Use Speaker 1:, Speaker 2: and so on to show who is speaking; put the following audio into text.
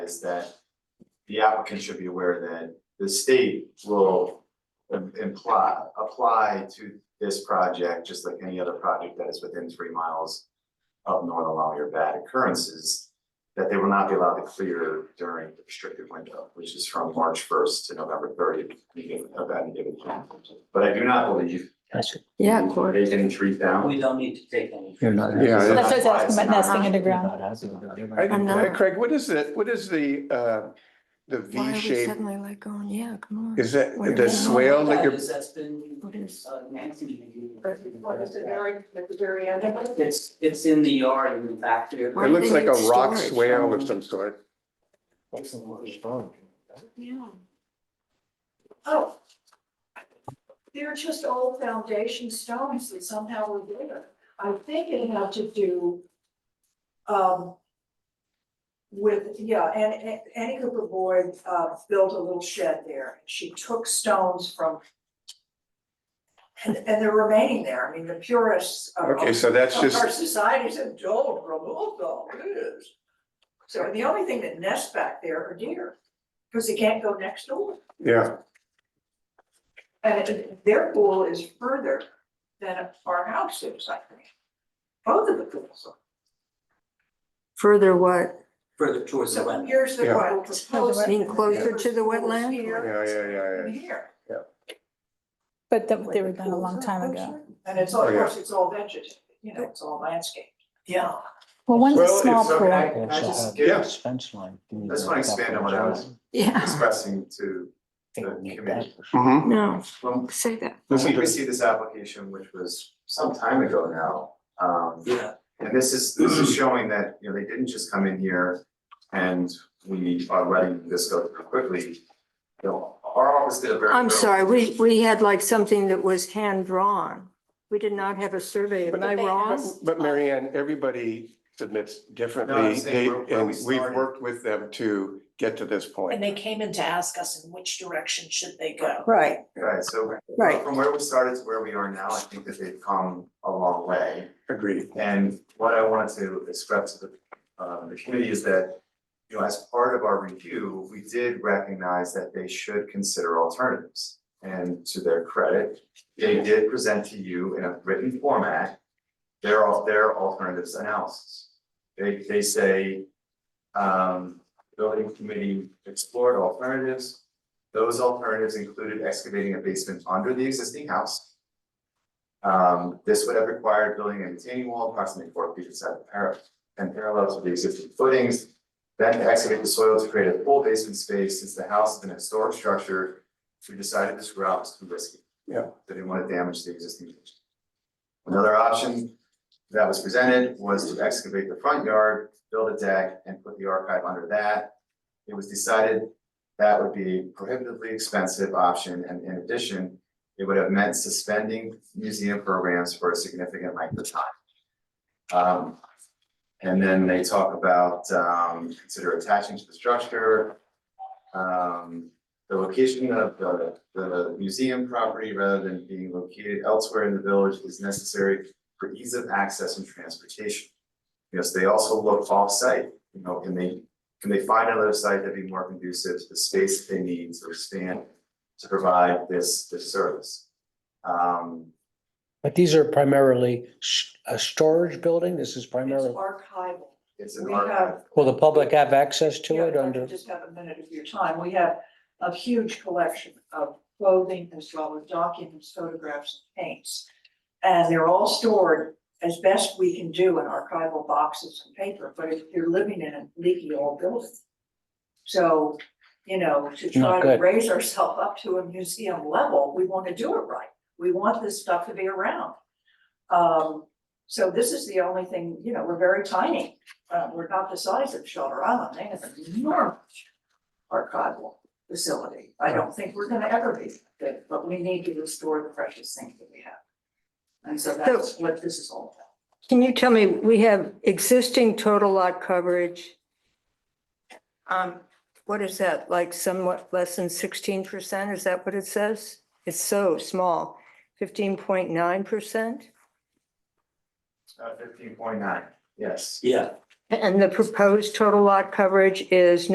Speaker 1: is that the applicant should be aware that the state will im- imply, apply to this project, just like any other project that is within three miles of northern allow your bad occurrences, that they will not be allowed to clear during the restricted window, which is from March first to November thirtieth of any given year. But I do not believe
Speaker 2: That's it.
Speaker 3: Yeah, of course.
Speaker 1: they can treat down.
Speaker 4: We don't need to take any.
Speaker 2: You're not.
Speaker 5: Yeah,
Speaker 1: So
Speaker 6: That's what I was asking
Speaker 1: Otherwise,
Speaker 3: Uh-huh.
Speaker 6: about nesting
Speaker 2: You're
Speaker 6: underground.
Speaker 2: not asking about it.
Speaker 5: I-
Speaker 3: I'm not.
Speaker 5: Craig, what is it, what is the, uh, the
Speaker 3: Why are
Speaker 5: V
Speaker 3: we
Speaker 5: shape?
Speaker 3: suddenly like going, yeah, come on?
Speaker 5: Is that
Speaker 3: Wait a
Speaker 5: the
Speaker 3: minute.
Speaker 5: swale that
Speaker 4: That
Speaker 5: you're,
Speaker 4: is, that's been,
Speaker 3: What is,
Speaker 4: uh, Nancy.
Speaker 7: What is the very, at the very end of it?
Speaker 4: It's, it's in the yard in the back there.
Speaker 3: Where
Speaker 5: it
Speaker 3: do
Speaker 5: looks
Speaker 3: they
Speaker 5: like
Speaker 3: need
Speaker 5: a rock
Speaker 3: storage?
Speaker 5: swale of some sort.
Speaker 3: yeah,
Speaker 7: Oh. They're just old foundation stones that somehow were there. I think it had to do um with, yeah, and and Annie Cooper Boyd uh built a little shed there. She took stones from and and they're remaining there. I mean, the purists
Speaker 3: Oh,
Speaker 7: of
Speaker 5: Okay, so that's
Speaker 7: of
Speaker 5: just,
Speaker 7: Our society's said, don't remove them, yes." oh, So the only thing that nests back there are deer, because they can't go next door.
Speaker 5: yeah,
Speaker 7: And it- their pool is further than our house is, I think. Both of the pools. are.
Speaker 3: further what?
Speaker 4: Further towards the wetland.
Speaker 7: Here's the
Speaker 5: Yeah.
Speaker 7: one proposed.
Speaker 3: Being closer to the
Speaker 7: Pool's
Speaker 3: wetland?
Speaker 7: Here.
Speaker 5: yeah, yeah, yeah,
Speaker 7: and
Speaker 5: yeah.
Speaker 7: Here.
Speaker 6: But that,
Speaker 7: Wait,
Speaker 6: they were
Speaker 7: the
Speaker 6: done a
Speaker 7: pools
Speaker 6: long
Speaker 7: are
Speaker 6: time ago.
Speaker 7: closer? And it's, all-
Speaker 5: Oh,
Speaker 7: of
Speaker 5: yeah.
Speaker 7: course, it's all vegetated, you know, it's all landscaped. Yeah.
Speaker 6: Well, one's a
Speaker 5: Well, it's
Speaker 6: small
Speaker 1: So can I,
Speaker 6: pool.
Speaker 1: can I just
Speaker 5: Yeah.
Speaker 1: give,
Speaker 2: Fence line.
Speaker 1: I just wanna expand on what I was
Speaker 3: Yeah,
Speaker 1: expressing to
Speaker 2: Think we need that.
Speaker 5: Mhm.
Speaker 3: no,
Speaker 1: When
Speaker 3: say
Speaker 1: when
Speaker 3: that.
Speaker 1: we
Speaker 5: Listen to-
Speaker 1: received this application, which was some time ago now, um,
Speaker 4: Yeah,
Speaker 1: and this is, this is showing that, you know, they didn't just come in here and we are letting this go through quickly. You know, our office did a very.
Speaker 3: I'm
Speaker 1: thorough-
Speaker 3: sorry, we, we had like something that was hand-drawn. We did not have a survey, am I wrong?
Speaker 5: But Mary Ann, everybody submits
Speaker 1: No,
Speaker 5: differently,
Speaker 1: I'm saying
Speaker 5: they,
Speaker 1: where- where
Speaker 5: and
Speaker 1: we
Speaker 5: we've
Speaker 1: started.
Speaker 5: worked with them to get to this
Speaker 8: And
Speaker 5: point.
Speaker 8: they came in to ask us in which direction should they go.
Speaker 3: Right,
Speaker 1: Right, so
Speaker 3: Right.
Speaker 1: from where we started to where we are now, I think that they've come a long way.
Speaker 5: Agreed.
Speaker 1: And what I wanted to express to the, um, the committee is that, you know, as part of our review, we did recognize that they should consider alternatives. And to their credit, they did present to you in a written format their, al- their alternatives analysis. They, they say, um, building committee explored alternatives. Those alternatives included excavating a basement under the existing house. Um, this would have required building a retaining wall approximately four feet inside the parapet and parallel to the existing footings. Then to excavate the soil to create a full basement space, since the house is an historic structure, we decided this route was too risky.
Speaker 5: Yeah.
Speaker 1: They Didn't want to damage the existing. features. Another option that was presented was to excavate the front yard, build a deck and put the archive under that. It was decided that would be prohibitively expensive option and in addition, it would have meant suspending museum programs for a significant length of time. Um, and then they talk about, um, consider attaching to the structure, um, the location of the, the museum property rather than being located elsewhere in the village is necessary for ease of access and transportation. Because they also look off-site, you know, can they, can they find another site that'd be more conducive to the space that they need to expand to provide this, this service? Um,
Speaker 2: But these are primarily s- a storage building. This is
Speaker 7: It's
Speaker 2: primarily,
Speaker 7: archival.
Speaker 1: it's an
Speaker 7: We
Speaker 1: archive.
Speaker 7: have
Speaker 2: will the public have access to
Speaker 7: Yeah,
Speaker 2: it
Speaker 7: if I could
Speaker 2: under?
Speaker 7: Just have a minute of your time. We have a huge collection of clothing as well as documents, photographs, and paints. And they're all stored as best we can do in archival boxes and paper, but if you're living in a leaky old building. So, you know, to try
Speaker 2: Not
Speaker 7: to
Speaker 2: good.
Speaker 7: raise ourselves up to a museum level, we want to do it right. We want this stuff to be around. Um, so this is the only thing, you know, we're very tiny uh, we're not the size of Shelter Island, they have an enormous archival facility. I don't think we're gonna ever be big, but we need to restore the precious things that we have. And so that's what this is all about.
Speaker 3: Can you tell me, we have existing total lot coverage. Um, what is that, like somewhat less than sixteen percent, is that what it says? It's so small, fifteen point nine percent?
Speaker 1: Uh, fifteen point nine, yes.
Speaker 4: yeah.
Speaker 3: And the proposed total lot coverage is